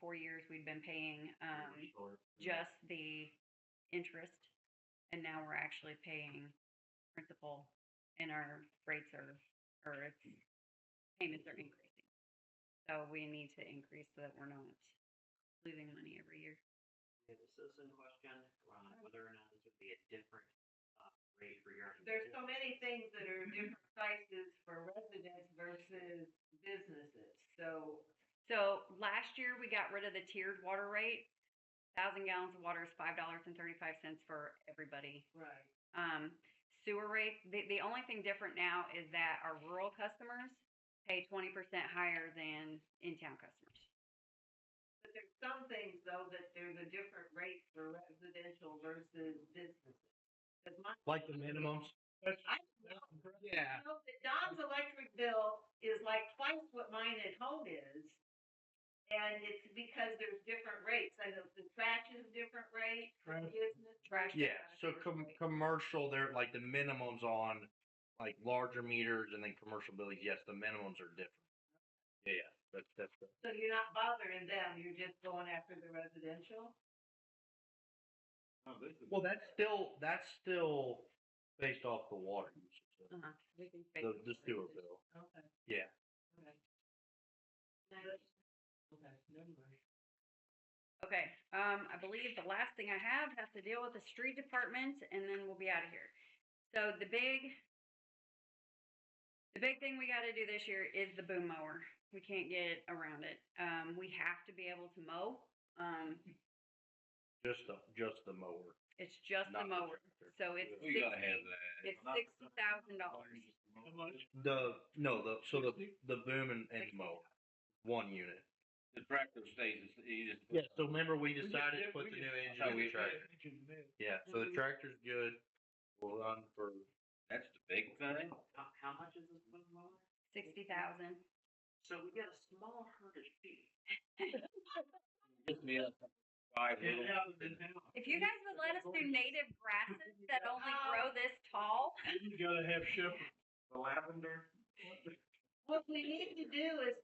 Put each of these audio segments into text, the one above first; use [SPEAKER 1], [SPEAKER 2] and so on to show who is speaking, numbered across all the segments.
[SPEAKER 1] four years, we'd been paying um, just the interest, and now we're actually paying principal, and our rates are, or it's, payments are increasing. So we need to increase so that we're not losing money every year.
[SPEAKER 2] We have a citizen question on whether or not this would be a different uh, rate for your.
[SPEAKER 3] There's so many things that are different prices for residents versus businesses, so
[SPEAKER 1] So last year, we got rid of the tiered water rate. Thousand gallons of water is five dollars and thirty-five cents for everybody.
[SPEAKER 3] Right.
[SPEAKER 1] um, sewer rates. The, the only thing different now is that our rural customers pay twenty percent higher than in-town customers.
[SPEAKER 3] But there's some things though that there's a different rate for residential versus businesses. 'Cause my-
[SPEAKER 4] Like the minimums?
[SPEAKER 3] I know
[SPEAKER 4] Yeah.
[SPEAKER 3] that Don's electric bill is like twice what mine at home is. And it's because there's different rates. I know the trash is different rate, business.
[SPEAKER 1] Trash.
[SPEAKER 4] Yeah, so com- commercial, they're like the minimums on like larger meters and then commercial buildings, yes, the minimums are different. Yeah, yeah, that's, that's, the-
[SPEAKER 3] So you're not bothering them, you're just going after the residential?
[SPEAKER 5] Oh,
[SPEAKER 4] well, that's still, that's still based off the water usage,
[SPEAKER 1] Uh-huh. We can
[SPEAKER 4] the,
[SPEAKER 1] fix it.
[SPEAKER 4] the sewer bill.
[SPEAKER 3] Okay.
[SPEAKER 4] Yeah.
[SPEAKER 3] Okay. Okay, never mind.
[SPEAKER 1] Okay, um, I believe the last thing I have has to deal with the street department and then we'll be out of here. So the big, the big thing we gotta do this year is the boom mower. We can't get around it. Um, we have to be able to mow. Um,
[SPEAKER 4] Just the, just the mower.
[SPEAKER 1] it's just the
[SPEAKER 4] not the
[SPEAKER 1] mower,
[SPEAKER 4] tractor.
[SPEAKER 1] so it's
[SPEAKER 5] We gotta have
[SPEAKER 1] sixty,
[SPEAKER 5] that.
[SPEAKER 1] it's sixty thousand dollars.
[SPEAKER 4] The, no, the, so the, the boom and, and mower, one unit.
[SPEAKER 5] The tractor stays, it's, you just.
[SPEAKER 4] Yeah, so remember we
[SPEAKER 5] just-
[SPEAKER 4] decided to put
[SPEAKER 5] we
[SPEAKER 4] the
[SPEAKER 5] just-
[SPEAKER 4] new
[SPEAKER 5] I
[SPEAKER 4] engine
[SPEAKER 5] thought
[SPEAKER 4] in
[SPEAKER 5] we
[SPEAKER 4] the tractor. Yeah, so
[SPEAKER 1] Mhm.
[SPEAKER 3] Mm-hmm.
[SPEAKER 4] the tractor's good. We'll run for
[SPEAKER 5] That's the big thing.
[SPEAKER 2] How, how much is this one mower?
[SPEAKER 1] Sixty thousand.
[SPEAKER 2] So we got a small herd of sheep.
[SPEAKER 5] Just me up five little.
[SPEAKER 1] If you guys would let us do native grasses that only grow this tall,
[SPEAKER 6] You gotta have shepherd.
[SPEAKER 2] The lavender.
[SPEAKER 3] What we need to do is,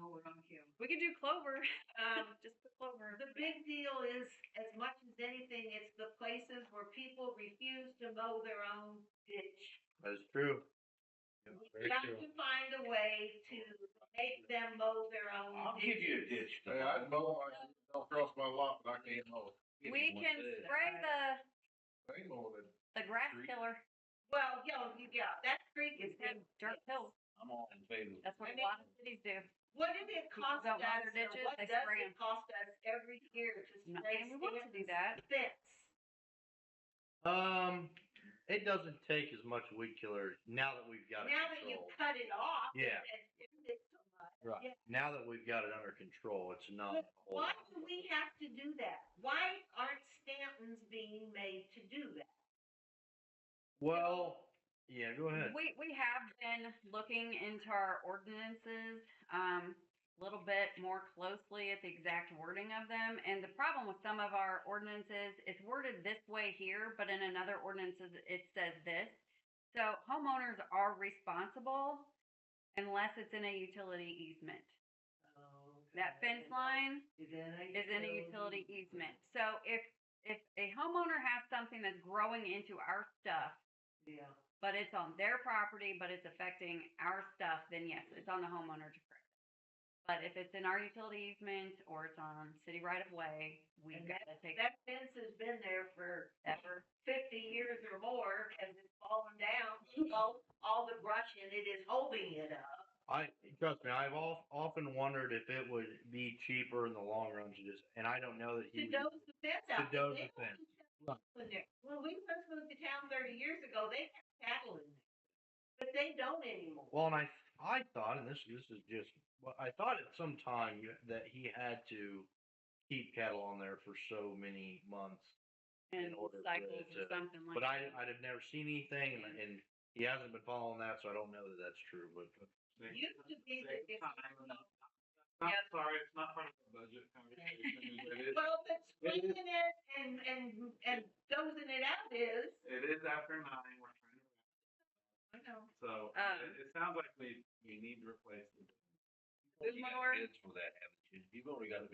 [SPEAKER 3] oh, we're on cue.
[SPEAKER 1] we could do clover.
[SPEAKER 3] Um,
[SPEAKER 1] Just put clover.
[SPEAKER 3] the big deal is, as much as anything, it's the places where people refuse to mow their own ditch.
[SPEAKER 4] that's true.
[SPEAKER 3] We've got to find a way to make them mow their own
[SPEAKER 5] I'll give
[SPEAKER 3] ditch.
[SPEAKER 5] you a ditch.
[SPEAKER 6] Hey, I mow, I don't cross my lot, but I can't mow.
[SPEAKER 5] Give
[SPEAKER 1] We
[SPEAKER 5] you one
[SPEAKER 1] can
[SPEAKER 5] there.
[SPEAKER 1] spray the
[SPEAKER 6] They mow it.
[SPEAKER 1] the grass
[SPEAKER 5] Street.
[SPEAKER 1] killer.
[SPEAKER 3] Well, you know, you got, that creek is.
[SPEAKER 1] It's got dirt pills.
[SPEAKER 5] I'm all in favor. of
[SPEAKER 1] That's
[SPEAKER 3] I
[SPEAKER 1] what a
[SPEAKER 3] mean-
[SPEAKER 1] lot of cities do.
[SPEAKER 3] What did it
[SPEAKER 1] People
[SPEAKER 3] cost
[SPEAKER 1] don't
[SPEAKER 3] us,
[SPEAKER 1] mow
[SPEAKER 3] or
[SPEAKER 1] their ditches,
[SPEAKER 3] what
[SPEAKER 1] they
[SPEAKER 3] does
[SPEAKER 1] spray
[SPEAKER 3] it
[SPEAKER 1] 'em.
[SPEAKER 3] cost us every year to
[SPEAKER 1] I'm Not
[SPEAKER 3] spray
[SPEAKER 1] saying we want to do
[SPEAKER 3] Stanton's
[SPEAKER 1] that.
[SPEAKER 3] fence?
[SPEAKER 4] Um, it doesn't take as much weed killer now that we've got it
[SPEAKER 3] Now that you
[SPEAKER 4] controlled.
[SPEAKER 3] cut it off.
[SPEAKER 4] Yeah.
[SPEAKER 3] and do it so much,
[SPEAKER 4] Right.
[SPEAKER 3] yeah.
[SPEAKER 4] Now that we've got it under control, it's not.
[SPEAKER 3] But
[SPEAKER 4] a whole
[SPEAKER 3] Why
[SPEAKER 4] lot.
[SPEAKER 3] do we have to do that? Why aren't Stanton's being made to do that?
[SPEAKER 4] Well, yeah, go ahead.
[SPEAKER 1] We we have been looking into our ordinances um a little bit more closely at the exact wording of them. And the problem with some of our ordinances, it's worded this way here, but in another ordinance it- it says this. So homeowners are responsible unless it's in a utility easement. That fence line
[SPEAKER 3] Is in a.
[SPEAKER 1] is in a utility easement. So if if a homeowner has something that's growing into our stuff
[SPEAKER 3] Yeah.
[SPEAKER 1] but it's on their property, but it's affecting our stuff, then yes, it's on the homeowner to correct. it. But if it's in our utility easement or it's on city right of way, we've
[SPEAKER 3] And
[SPEAKER 1] got to take
[SPEAKER 3] That fence has been there for
[SPEAKER 1] ever.
[SPEAKER 3] fifty years or more and it's fallen down. All, all the brush in it is holding it up.
[SPEAKER 4] I trust me. I've al- often wondered if it would be cheaper in the long run to just, and I don't know
[SPEAKER 3] To
[SPEAKER 4] that he. would-
[SPEAKER 3] doze the fence
[SPEAKER 4] To
[SPEAKER 3] out.
[SPEAKER 4] doze
[SPEAKER 3] They
[SPEAKER 4] the fence.
[SPEAKER 3] don't have cattle in there. When we first moved to town thirty years ago, they had cattle in there. But they don't anymore.
[SPEAKER 4] Well, and I I thought, and this this is just, well, I thought at some time you- that he had to keep cattle on there for so many months,
[SPEAKER 1] And
[SPEAKER 4] in order for
[SPEAKER 1] cycles
[SPEAKER 4] it
[SPEAKER 1] or
[SPEAKER 4] to-
[SPEAKER 1] something like
[SPEAKER 4] but I
[SPEAKER 1] that.
[SPEAKER 4] I'd have never seen anything, and, and he hasn't been following that, so I don't know that that's true. But
[SPEAKER 3] Used to be that if-
[SPEAKER 2] I'm
[SPEAKER 1] Yep.
[SPEAKER 2] sorry, it's not part of the budget.
[SPEAKER 3] Well, but
[SPEAKER 6] It is-
[SPEAKER 3] cleaning it and, and, and dozing it out is.
[SPEAKER 2] It is after nine, we're trying to, wrap,
[SPEAKER 3] I know.
[SPEAKER 2] so
[SPEAKER 1] Um.
[SPEAKER 2] it, it sounds like we, we need to replace the.
[SPEAKER 1] Good
[SPEAKER 5] You got
[SPEAKER 1] Lord.
[SPEAKER 5] bids for that, haven't you? You've already got